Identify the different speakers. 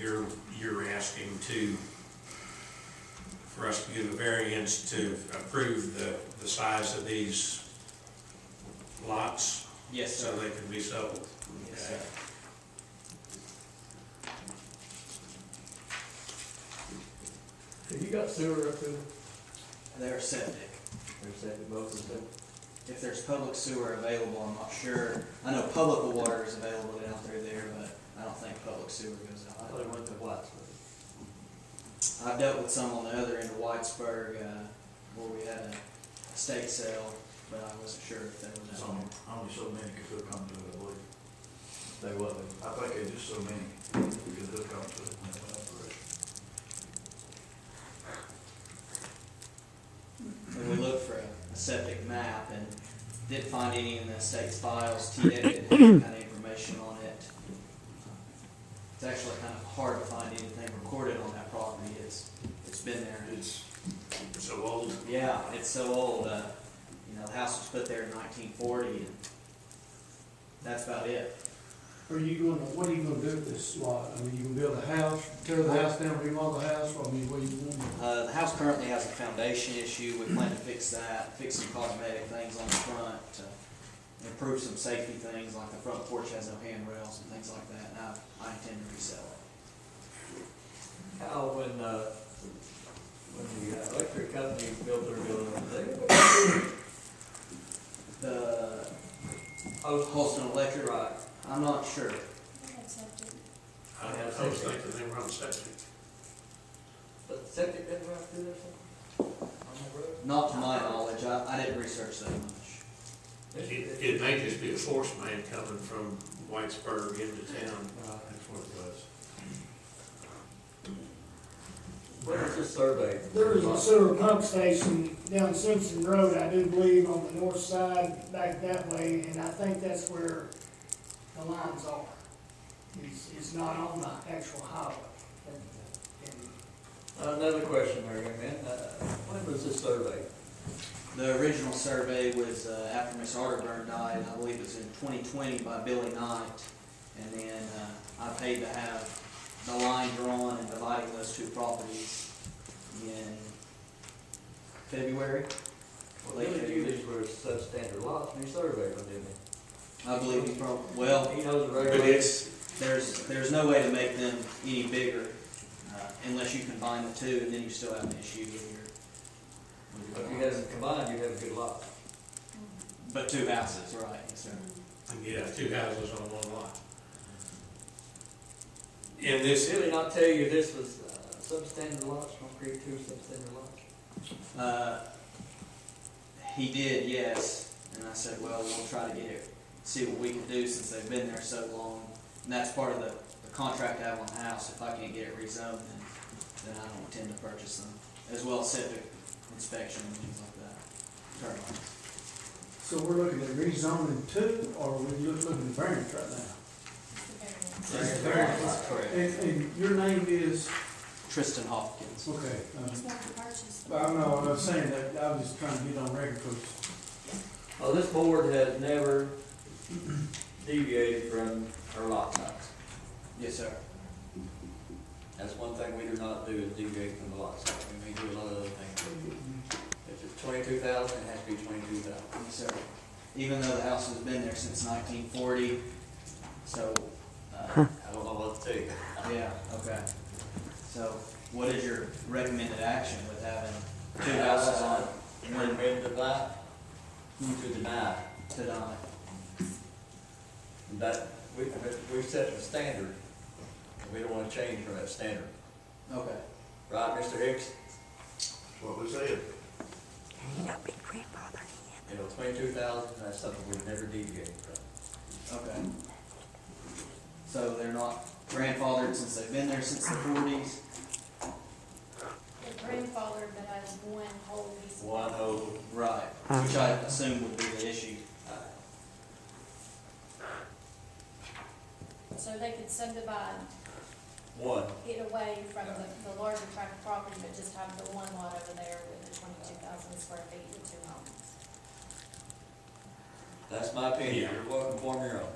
Speaker 1: you're, you're asking to, for us to give a variance to approve the, the size of these lots
Speaker 2: Yes,
Speaker 1: so
Speaker 2: sir.
Speaker 1: they can be sold.
Speaker 2: Yes,
Speaker 1: Okay.
Speaker 2: sir.
Speaker 3: Have you got sewer up there?
Speaker 2: They're septic.
Speaker 3: There's that, both of them.
Speaker 2: If there's public sewer available, I'm not sure. I know public water is available down through there, but I don't think public sewer goes
Speaker 3: I
Speaker 2: out.
Speaker 3: thought it went to White's.
Speaker 2: I've dealt with some on the other end of Whitesburg, uh, where we had a estate sale, but I wasn't sure if that was
Speaker 4: There's
Speaker 2: on
Speaker 4: only, only so many could hook onto it, I believe.
Speaker 3: They wasn't.
Speaker 4: I think there's just so many could hook onto it in that one operation.
Speaker 2: And we looked for a a septic map and didn't find any in the state's files, TA didn't have any kind of information on it. It's actually kind of hard to find anything recorded on that property, it's, it's been there.
Speaker 1: It's so old.
Speaker 2: Yeah, it's so old, uh, you know, the house was put there in nineteen forty and that's about it.
Speaker 5: Are you gonna, what are you gonna do with this lot? I mean, you can build a house, tear the house down, remodel the house, or I mean, what do you want?
Speaker 2: Uh, the house currently has a foundation issue, we plan to fix that, fix some cosmetic things on the front, to improve some safety things, like the front porch has no handrails and things like that, and I, I intend to resell it.
Speaker 3: How, when, uh, when the uh, electric company built their building, they,
Speaker 2: The
Speaker 3: oh,
Speaker 2: Holston Electric,
Speaker 3: right,
Speaker 2: I'm not sure,
Speaker 1: I I was thinking they were on septic.
Speaker 3: but septic didn't run through there somewhere?
Speaker 2: not to my knowledge, I, I didn't research that much.
Speaker 3: On the road?
Speaker 1: It, it may just be a force man coming from Whitesburg into town.
Speaker 3: Right.
Speaker 4: That's what it was.
Speaker 3: Where is this survey? Uh,
Speaker 6: There is a sewer pump station down Simpson Road, I do believe, on the north side, back that way, and I think that's where the lines are. It's, it's not on the actual highway. And- and
Speaker 3: Another question, Mary Ann, man, uh, when was this survey?
Speaker 2: The original survey was uh, after Miss Arterburn died, I believe it was in 2020 by Billy Knight. And then uh, I paid to have the line drawn and dividing those two properties in February.
Speaker 3: Well, they knew these were substandard lots, and he surveyed them, didn't
Speaker 2: I believe he prob, well,
Speaker 3: he? He knows the
Speaker 1: But
Speaker 3: regulations.
Speaker 1: it's,
Speaker 2: there's, there's no way to make them any bigger uh, unless you combine the two and then you still have an issue with your- with your.
Speaker 3: If you had them combined, you'd have a good lot.
Speaker 2: But two houses, right, yes, sir.
Speaker 1: yeah, two houses on one lot. And this,
Speaker 3: Did they not tell you this was uh, substandard lots, from create two substandard lots?
Speaker 2: Uh, He did, yes, and I said, well, we'll try to get it, see what we can do since they've been there so long. And that's part of the, the contract I have on the house, if I can't get it rezoned, then, then I don't intend to purchase them, as well as septic inspection and things like that. Turn on.
Speaker 5: So we're looking at rezoning two, or we're just looking at variance right now?
Speaker 2: That's correct.
Speaker 5: And, and your name is,
Speaker 2: Tristan Hopkins.
Speaker 5: okay, um,
Speaker 7: It's not the purchase.
Speaker 5: I don't know, I was saying that, I was just trying to get on record, because
Speaker 3: Oh, this board has never deviated from our lot size.
Speaker 2: Yes, sir.
Speaker 3: That's one thing we do not do, is deviate from the lot size, we may do a lot of other things. If it's twenty-two thousand, it has to be twenty-two thousand.
Speaker 2: Yes, sir. Even though the house has been there since nineteen forty, so, uh,
Speaker 3: I don't know what to tell you.
Speaker 2: Yeah, okay. So what is your recommended action with having two houses on
Speaker 3: One ready to buy, to deny.
Speaker 2: tonight?
Speaker 3: That, we, we set the standard, and we don't wanna change from that standard.
Speaker 2: Okay.
Speaker 3: Right, Mr. Hicks?
Speaker 4: That's what we said.
Speaker 3: You know, twenty-two thousand, that's something we've never deviated from.
Speaker 2: Okay. So they're not grandfathered since they've been there since the forties?
Speaker 7: The grandfather, but as one whole piece of
Speaker 3: One oh,
Speaker 2: Right, which I assume would be the issue.
Speaker 7: So they could subdivide
Speaker 3: one,
Speaker 7: it away from the, the larger tract of property, but just have the one lot over there with the twenty-two thousand square feet with two homes.
Speaker 3: that's my opinion,
Speaker 1: Yeah.
Speaker 3: you're welcome to form your own.